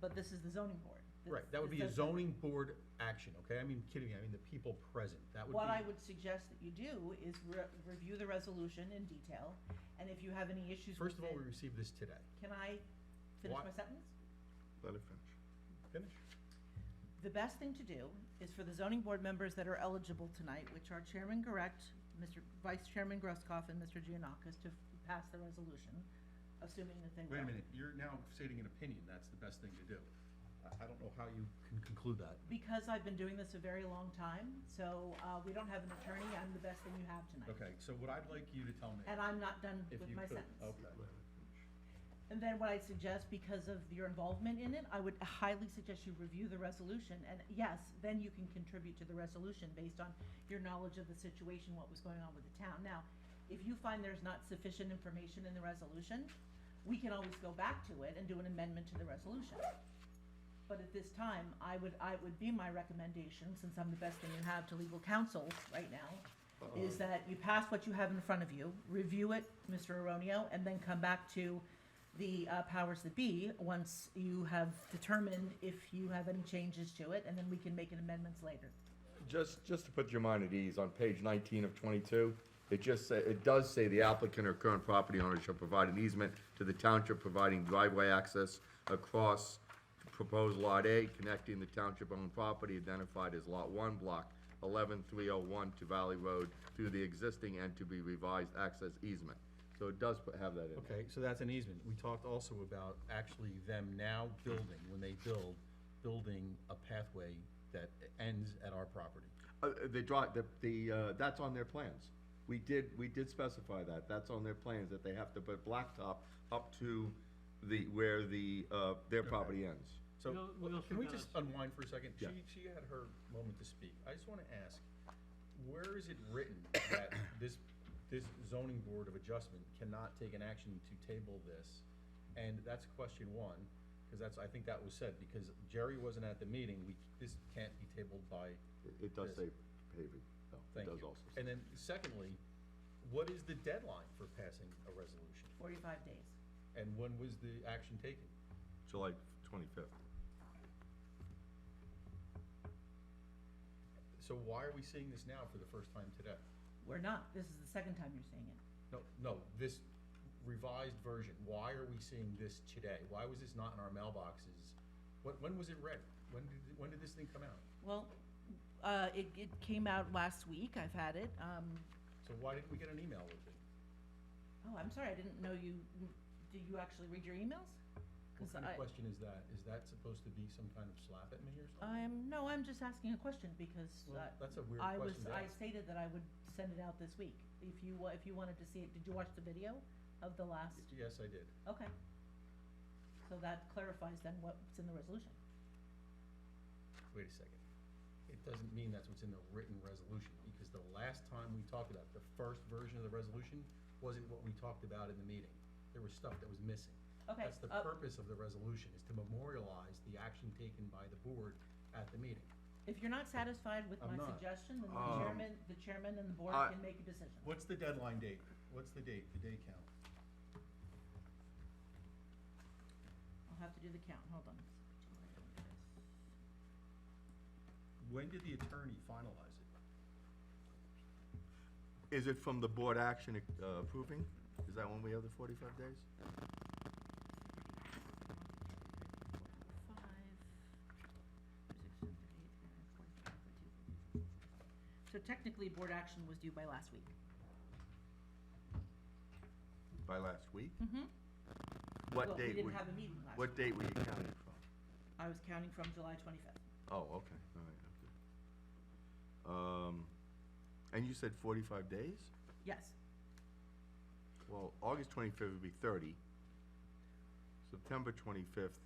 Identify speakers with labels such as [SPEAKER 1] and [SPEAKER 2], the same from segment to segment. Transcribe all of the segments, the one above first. [SPEAKER 1] but this is the zoning board. This-
[SPEAKER 2] Right, that would
[SPEAKER 1] this
[SPEAKER 2] be a
[SPEAKER 1] doesn't-
[SPEAKER 2] zoning board action, okay? I mean, kidding me, I mean the people present, that would be.
[SPEAKER 1] What I would suggest that you do is re- review the resolution in detail, and if you have any issues
[SPEAKER 2] First
[SPEAKER 1] with
[SPEAKER 2] of all, we
[SPEAKER 1] it,
[SPEAKER 2] received this today.
[SPEAKER 1] can I finish
[SPEAKER 2] Why-
[SPEAKER 1] my sentence?
[SPEAKER 3] Let it finish.
[SPEAKER 2] Finish.
[SPEAKER 1] The best thing to do is for the zoning board members that are eligible tonight, which are Chairman Correct, Mr. Vice Chairman Grosskopf, and Mr. Giannakis, to f- pass the resolution, assuming that they will.
[SPEAKER 2] Wait a minute, you're now stating an opinion, that's the best thing to do. I, I don't know how you can conclude that.
[SPEAKER 1] Because I've been doing this a very long time, so uh, we don't have an attorney, I'm the best thing you have tonight.
[SPEAKER 2] Okay, so what I'd like you to tell me,
[SPEAKER 1] And I'm not done
[SPEAKER 2] if
[SPEAKER 1] with
[SPEAKER 2] you
[SPEAKER 1] my
[SPEAKER 2] could,
[SPEAKER 1] sentence.
[SPEAKER 2] okay.
[SPEAKER 1] And then what I'd suggest, because of your involvement in it, I would highly suggest you review the resolution, and yes, then you can contribute to the resolution based on your knowledge of the situation, what was going on with the town. Now, if you find there's not sufficient information in the resolution, we can always go back to it and do an amendment to the resolution. But at this time, I would, I would be my recommendation, since I'm the best thing you have to legal counsel right now, is that you pass what you have in front of you, review it, Mr. Aronio, and then come back to the uh, powers that be once you have determined if you have any changes to it, and then we can make an amendments later.
[SPEAKER 4] Just, just to put your mind at ease, on page nineteen of twenty-two, it just say, it does say the applicant or current property owner shall provide an easement to the township providing driveway access across proposed lot A, connecting the township-owned property identified as lot one, block eleven three oh one to Valley Road through the existing and to be revised access easement. So it does put- have that in there.
[SPEAKER 2] Okay, so that's an easement. We talked also about actually them now building, when they build, building a pathway that ends at our property.
[SPEAKER 4] Uh, uh, the draw, the, the, uh, that's on their plans. We did, we did specify that, that's on their plans, that they have to put blacktop up to the, where the, uh, their property ends.
[SPEAKER 2] So,
[SPEAKER 5] We'll- we'll
[SPEAKER 2] can we
[SPEAKER 5] figure
[SPEAKER 2] just
[SPEAKER 5] out-
[SPEAKER 2] unwind for a second?
[SPEAKER 4] Yeah.
[SPEAKER 2] She, she had her moment to speak. I just wanna ask, where is it written that this, this zoning board of adjustment cannot take an action to table this? And that's question one, cause that's, I think that was said, because Jerry wasn't at the meeting, we, this can't be tabled by
[SPEAKER 4] It- It does say paving, though, it
[SPEAKER 2] Thank
[SPEAKER 4] does
[SPEAKER 2] you.
[SPEAKER 4] also. say-
[SPEAKER 2] And then secondly, what is the deadline for passing a resolution?
[SPEAKER 1] Forty-five days.
[SPEAKER 2] And when was the action taken?
[SPEAKER 4] July twenty-fifth.
[SPEAKER 2] So why are we seeing this now for the first time today?
[SPEAKER 1] We're not, this is the second time you're saying it.
[SPEAKER 2] No, no, this revised version, why are we seeing this today? Why was this not in our mailboxes? When, when was it read? When did, when did this thing come out?
[SPEAKER 1] Well, uh, it, it came out last week, I've had it, um,
[SPEAKER 2] So why didn't we get an email with it?
[SPEAKER 1] oh, I'm sorry, I didn't know you, do you actually read your emails? 'Cause
[SPEAKER 2] What kind of
[SPEAKER 1] I-
[SPEAKER 2] question is that? Is that supposed to be some kind of slap at me or something?
[SPEAKER 1] I'm, no, I'm just asking a question because
[SPEAKER 2] Well,
[SPEAKER 1] uh,
[SPEAKER 2] that's a weird
[SPEAKER 1] I
[SPEAKER 2] question
[SPEAKER 1] was,
[SPEAKER 2] to
[SPEAKER 1] I
[SPEAKER 2] ask.
[SPEAKER 1] stated that I would send it out this week. If you, wa- if you wanted to see it, did you watch the video of the last?
[SPEAKER 2] Yes, I did.
[SPEAKER 1] Okay. So that clarifies then what's in the resolution.
[SPEAKER 2] Wait a second. It doesn't mean that's what's in the written resolution, because the last time we talked about, it, the first version of the resolution wasn't what we talked about in the meeting. There was stuff that was missing.
[SPEAKER 1] Okay,
[SPEAKER 2] That's the
[SPEAKER 1] uh,
[SPEAKER 2] purpose of the resolution, is to memorialize the action taken by the board at the meeting.
[SPEAKER 1] If you're not satisfied with my
[SPEAKER 2] I'm not. Um,
[SPEAKER 1] suggestion, then the chairman, the chairman and the board
[SPEAKER 4] I-
[SPEAKER 1] can make a decision.
[SPEAKER 2] What's the deadline date? What's the date, the day count?
[SPEAKER 1] I'll have to do the count, hold on.
[SPEAKER 2] When did the attorney finalize it?
[SPEAKER 4] Is it from the board action uh, approving? Is that when we have the forty-five days?
[SPEAKER 1] Five, six, seven, eight, nine, four, five, two, three. So technically, board action was due by last week.
[SPEAKER 4] By last week?
[SPEAKER 1] Mm-hmm.
[SPEAKER 4] What
[SPEAKER 1] Well,
[SPEAKER 4] date?
[SPEAKER 1] we didn't
[SPEAKER 4] would-
[SPEAKER 1] have a meeting last
[SPEAKER 4] What
[SPEAKER 1] week.
[SPEAKER 4] date were you counting from?
[SPEAKER 1] I was counting from July twenty-fifth.
[SPEAKER 4] Oh, okay, all right, okay. Um, and you said forty-five days?
[SPEAKER 1] Yes,
[SPEAKER 4] Well, August twenty-fifth would be thirty. September twenty-fifth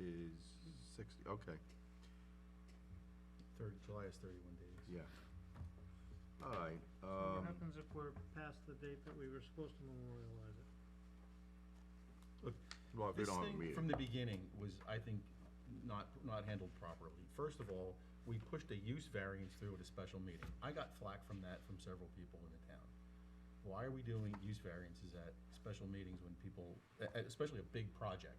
[SPEAKER 4] is sixty, okay,
[SPEAKER 2] Thirty, July is thirty-one days.
[SPEAKER 4] yeah. All right,
[SPEAKER 5] What
[SPEAKER 4] um,
[SPEAKER 5] happens if we're past the date that we were supposed to memorialize it?
[SPEAKER 4] well, if we
[SPEAKER 2] This
[SPEAKER 4] don't have a
[SPEAKER 2] thing from
[SPEAKER 4] meeting.
[SPEAKER 2] the beginning was, I think, not, not handled properly. First of all, we pushed a use variance through at a special meeting. I got flack from that from several people in the town. Why are we doing use variances at special meetings when people, e- e- especially a big project?